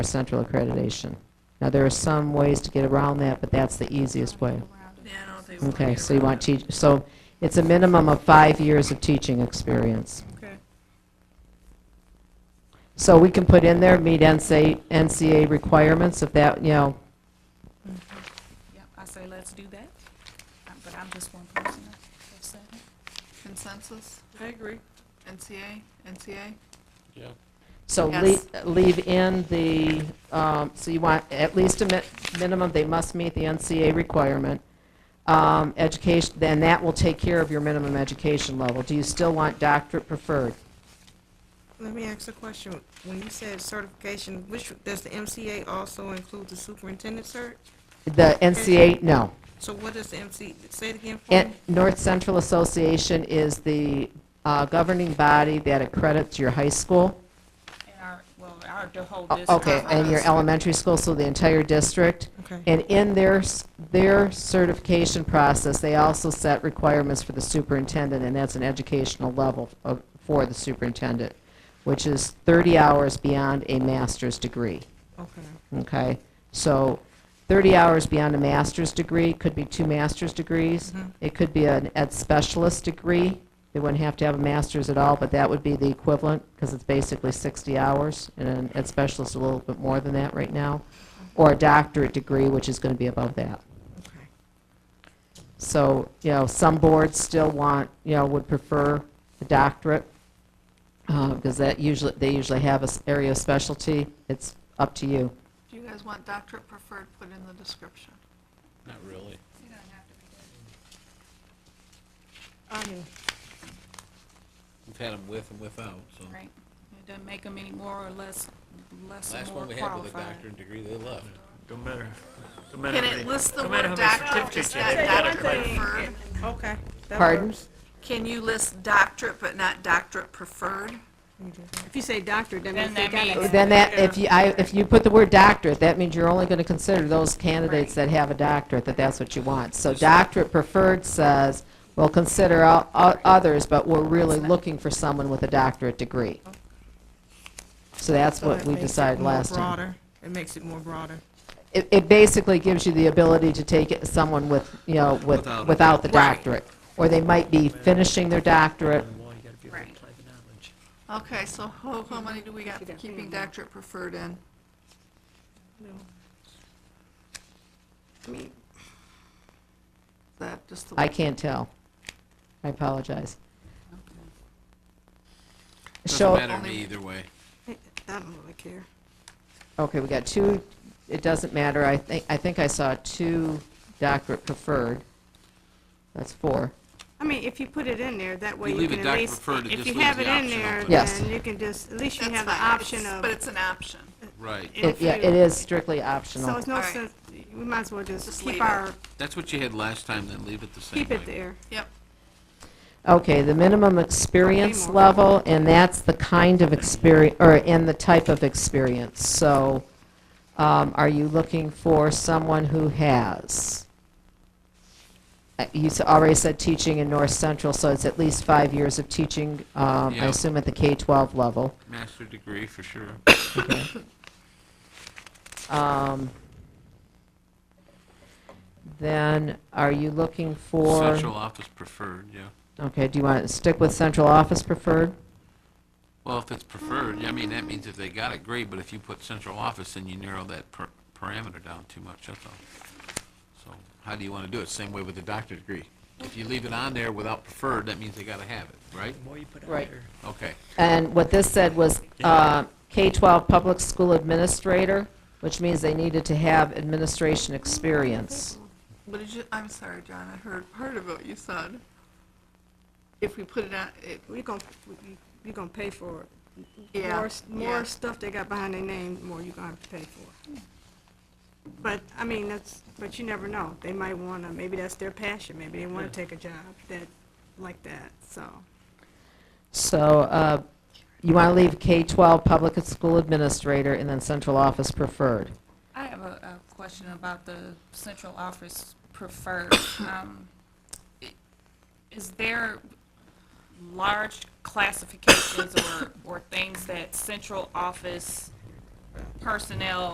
our central accreditation. Now, there are some ways to get around that, but that's the easiest way. Okay, so you want teach, so it's a minimum of five years of teaching experience. Okay. So we can put in there, meet NCA, NCA requirements if that, you know, Yep, I say let's do that, Uh, but I'm just one person. that's seven. Consensus, I agree. NCA, NCA? Yeah. so Yes. lea- leave in the, um, so you want at least a mi- minimum, they must meet the NCA requirement. Um, Education, then that will take care of your minimum education level. Do you still want doctorate preferred? Let me ask a question. When you said certification, which, does the MCA also include the superintendent cert? The NCA, no. So what is the MC, say it again for And me? North Central Association is the uh, governing body that accredits your high school, And our, well, our, the whole o- district. Oh, okay, and your elementary school, so the entire district. Okay, And in their, s- their certification process, they also set requirements for the superintendent, and that's an educational level of- for the superintendent, which is 30 hours beyond a master's degree. okay. Okay, so 30 hours beyond a master's degree, could be two master's degrees. Mhm. It could be an ed specialist degree. They wouldn't have to have a master's at all, but that would be the equivalent, because it's basically 60 hours, and an ed specialist is a little bit more than that right now, or a doctorate degree, which is going to be above that. Okay. So, you know, some boards still want, you know, would prefer the doctorate, because that usually, they usually have an area of specialty. It's up to you. Do you guys want doctorate preferred put in the description? Not really. I do. We've had them with and without, so. Right. It doesn't make them any more or less, less Last more one we had with a qualified. doctorate degree, they left. Don't matter. Don't matter Can how it many- list the don't matter word how many doctorate, just certificates you not have. doctorate preferred? Okay. that Pardon? works. Can you list doctorate but not doctorate preferred? If you say doctorate, that means Then they that got means- it. Then that, if you, I, if you put the word doctorate, that means you're only going to consider those candidates that have a doctorate, that that's what you want. So doctorate preferred says, we'll consider o- o- others, but we're really looking for someone with a doctorate degree. So that's So what that we makes it decided more last time. broader. It makes it more broader. It, it basically gives you the ability to take it- someone with, you know, with, Without it. without the Right. doctorate. Or they might be finishing their doctorate, Well, you gotta be able to apply the knowledge. Okay, so how, how many do we got for keeping doctorate preferred in? I mean, Is that just the? I can't tell. I apologize. Doesn't Show, matter to me either way. I don't really care. Okay, we got two, it doesn't matter, I think, I think I saw two doctorate preferred. That's four. I mean, if you put it in there, that way You you leave can it at doctor least, preferred, it if just you leaves have the it in option there, open. Yes. then you can just, at least you That's have the fine, option it's- of. But it's an option. Right. It- Yeah, if it you- is strictly So optional. it's no All right. sense, we might as well Just just leave keep it. our, That's what you had last time, then leave it the same way. keep it there. Yep. Okay, the minimum experience more. level, and that's the kind of experience, or, and the type of experience. So, um, are you looking for someone who has? Uh, You s- already said teaching in North Central, so it's at least five years of teaching, um, I Yeah. assume at the K-12 level. Master degree, for sure. Um, Then, are you looking for, Central office preferred, yeah. okay, do you want to stick with central office preferred? Well, if it's preferred, yeah, I mean, that means if they got it, great, but if you put central office, then you narrow that per- parameter down too much, that's all. So how do you want to do it? Same way with the doctorate degree. If you leave it on there without preferred, that means they got to have it, right? The more you put out Right. there. Okay. And what this said was uh, K-12 public school administrator, which means they needed to have administration experience. What did you, I'm sorry, John, I heard part of what you said. If we put it on, it, We're gonna, you're gonna pay for it. Yeah, More, s- yeah. more stuff they got behind their name, the more you're gonna have to pay for. But, I mean, that's, but you never know. They might wanna, maybe that's their passion, maybe they wanna take a job that, like that, so. So uh, you want to leave K-12 public school administrator and then central office preferred. I have a, a question about the central office preferred. Um, i- Is there large classifications or, or things that central office personnel